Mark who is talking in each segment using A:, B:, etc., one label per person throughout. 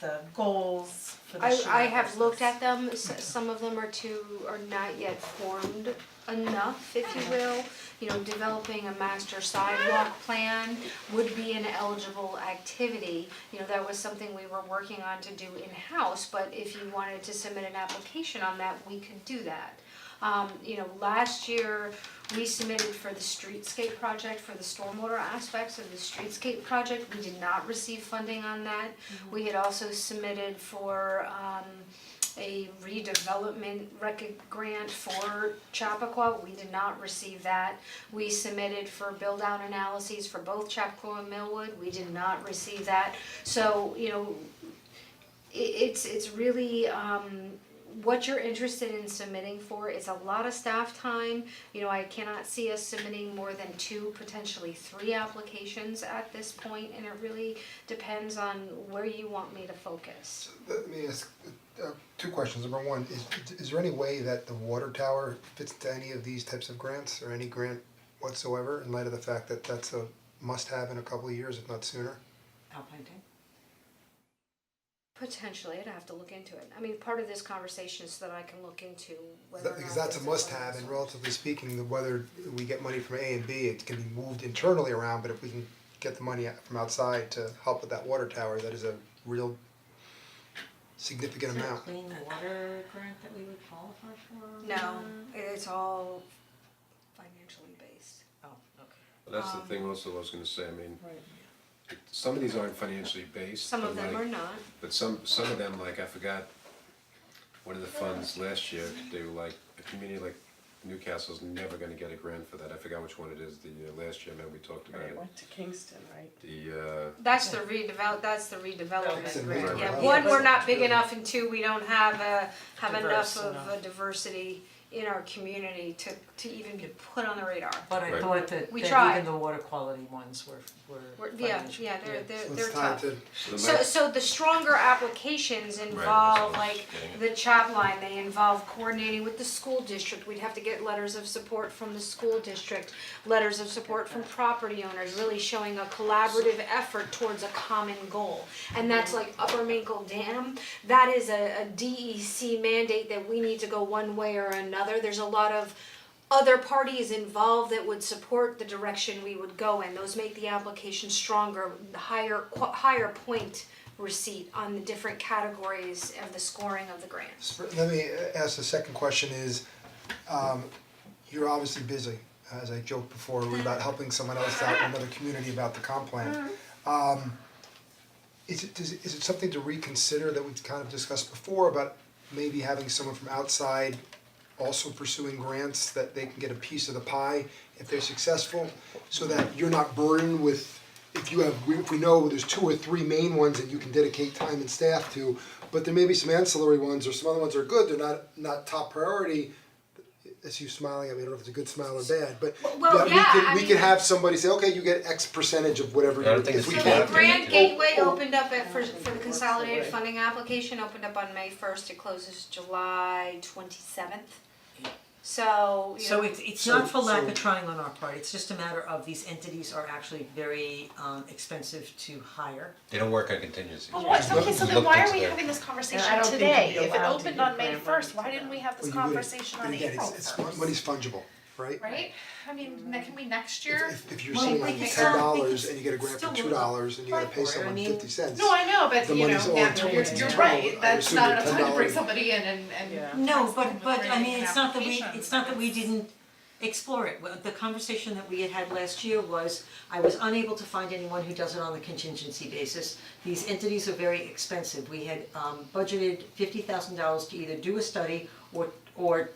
A: the goals for the
B: I
A: year.
B: I have looked
A: versus-
B: at them, s- some of them are too, are not yet formed enough, if you will. You know, developing a master sidewalk plan would be an eligible activity. You know, that was something we were working on to do in-house, but if you wanted to submit an application on that, we could do that. Um, you know, last year, we submitted for the streetscape project, for the stormwater aspects of the streetscape project, we did not receive funding on that. We had also submitted for um a redevelopment rec- grant for Chappaqua, we did not receive that. We submitted for build out analyses for both Chappaqua and Millwood, we did not receive that. So, you know, i- it's it's really um what you're interested in submitting for it's a lot of staff time you know i cannot see us submitting more than two potentially three applications at this point and it really depends on where you want me to focus
C: Let me ask uh, two questions. Number one, is is there any way that the water tower fits into any of these types of grants or any grant whatsoever in light of the fact that that's a must-have in a couple of years, if not sooner?
D: Alpine Day?
B: potentially i'd have to look into it i mean part of this conversation is so that i can look into whether
C: That-
B: or
C: Because
B: not
C: that's a
B: this is one of
C: must-have
B: those
C: and
B: ones.
C: relatively speaking, the whether we get money from A and B, it can be moved internally around, but if we can get the money from outside to help with that water tower, that is a real significant
D: Is there a
C: amount.
D: clean water grant that we would qualify for?
B: no it's all financially based
D: Oh, okay.
E: Well, That's the
B: Um,
E: thing also I was gonna say, I mean,
D: Right.
E: some of these aren't financially based,
B: some of
E: but
B: them
E: like-
B: are not
E: But some, some of them, like, I forgot, one of the funds last year, they were like, a community like Newcastle's never gonna get a grant for that, I forgot which one it is, the uh, last year, man, we talked about
F: Right,
E: it.
F: it went to Kingston, right?
E: The, uh,
B: That's the redevelop, that's the
C: It's a
B: redevelopment grant, yeah,
C: redevelopment.
B: one, we're not big enough, and two, we don't have a, have enough
A: Diverse
B: of a
A: enough.
B: diversity in our community to, to even be put on the radar.
D: But I
E: Right.
D: thought that
B: We
D: that
B: tried.
D: even the water quality ones were were
B: We're, yeah,
D: financial.
B: yeah, they're, they're,
C: So
B: they're
C: it's time
B: tough.
C: to,
E: so the
B: So,
E: last-
B: so the stronger applications involve
E: that's what I was
B: like
E: getting at.
B: the chop line, they involve coordinating with the school district, we'd have to get letters of support from the school district, letters of support from property owners, really showing a collaborative effort towards a common goal. And that's like Upper Minkle Dam, that is a, a DEC mandate that we need to go one way or another, there's a lot of other parties involved that would support the direction we would go in. Those make the application stronger, higher qu- higher point receipt on the different categories of the scoring of the grants.
C: Let me uh, ask the second question is, um, you're obviously busy, as I joked before, about helping someone else out in another community about the comp plan. Um, is it, does, it- is it something to reconsider that we've kind of discussed before about maybe having someone from outside also pursuing grants, that they can get a piece of the pie if they're successful, so that you're not burdened with, if you have, we, we know there's two or three main ones that you can dedicate time and staff to, but there may be some ancillary ones, or some other ones that are good, they're not, not top priority. That's you smiling, I mean, I don't know if it's a good smile or bad, but
B: well,
C: that we
B: yeah,
C: can,
B: I
C: we
B: mean-
C: can have somebody say, okay, you get X percentage of whatever,
E: Yeah, I don't
C: you-
E: think
C: if we
E: it's
C: can.
B: So
E: Yeah.
B: the grant gateway
C: Oh, oh.
B: opened up at, for, for the consolidated funding application, opened up on May first, it closes July twenty-seventh. So, you know.
D: So it's it's not for
C: So-
D: lack
C: so-
D: of trying on our part, it's just a matter of these entities are actually very um expensive to hire.
E: They don't work on contingencies.
A: Well, what,
C: Look-
A: okay, so then
E: looked
A: why are
E: into
A: we
E: that.
A: having this conversation
F: I don't think
A: today?
F: you'd be
A: If it
F: allowed to
A: opened
F: give
A: on May
F: grant
A: first,
F: money
A: why
F: to
A: didn't
F: them.
A: we have this
C: Well, you would,
A: conversation
C: but
A: on
C: again,
A: April
C: it's-
A: first?
C: it's, money's fungible, right?
A: Right? I mean, that can be next year.
C: If, if you're
D: Well,
C: sitting
D: we
C: on
D: can
C: ten
D: still- we
C: dollars
D: can
C: and you get a grant for
D: still
C: two dollars and you gotta
D: apply
C: pay
D: for it. I
C: someone
D: mean-
C: fifty cents.
A: No, I know, but
C: The
A: you know,
C: money's all
A: that-
C: towards
A: you're,
C: the
A: you're
C: town.
A: right,
C: I
A: that's
C: assume
A: not
C: the
A: enough time to bring
C: $10
A: somebody in and, and.
F: Yeah.
D: No,
A: ask them
D: but
A: to
D: but
A: bring
D: I
A: in
D: mean,
A: an
D: it's not that we,
A: application,
D: it's not that we
A: it's-
D: didn't explore it, Well, the conversation that we had had last year was, I was unable to find anyone who does it on the contingency basis. These entities are very expensive, we had um budgeted fifty thousand dollars to either do a study or or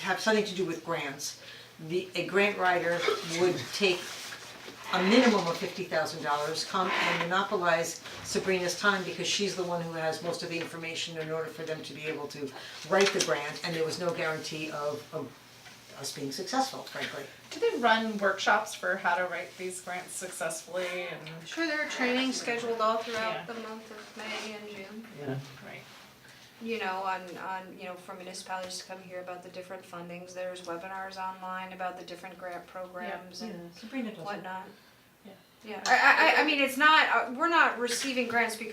D: have something to do with grants. The, a grant writer would take a minimum of fifty thousand dollars, come and monopolize Sabrina's time because she's the one who has most of the information in order for them to be able to write the grant, and there was no guarantee of of us being successful, frankly.
A: Do they run workshops for how to write these grants successfully and,
B: I'm sure there are trainings scheduled all
A: Yeah.
B: throughout the month of May and June.
A: right?
B: you know, on on, you know, for municipalities to come here about the different fundings, there's webinars online about the different grant programs and
D: Sabrina does
B: whatnot. Yeah. I I I I mean, it's not, uh, we're not receiving grants because